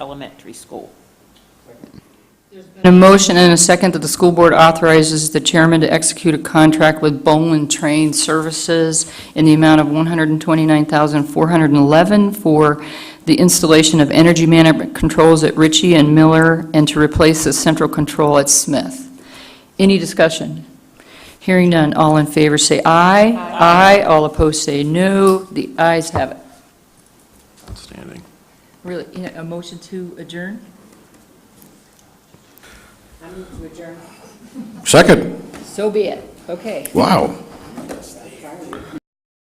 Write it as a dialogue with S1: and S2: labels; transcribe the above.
S1: Elementary School.
S2: A motion and a second that the school board authorizes the chairman to execute a contract with Bowlin Train Services in the amount of $129,411 for the installation of energy management controls at Ritchie and Miller and to replace the central control at Smith. Any discussion? Hearing none, all in favor say aye. Aye. All opposed say no. The ayes have it.
S3: Outstanding.
S2: Really, you know, a motion to adjourn?
S3: Second,
S2: So be it. Okay.
S3: wow.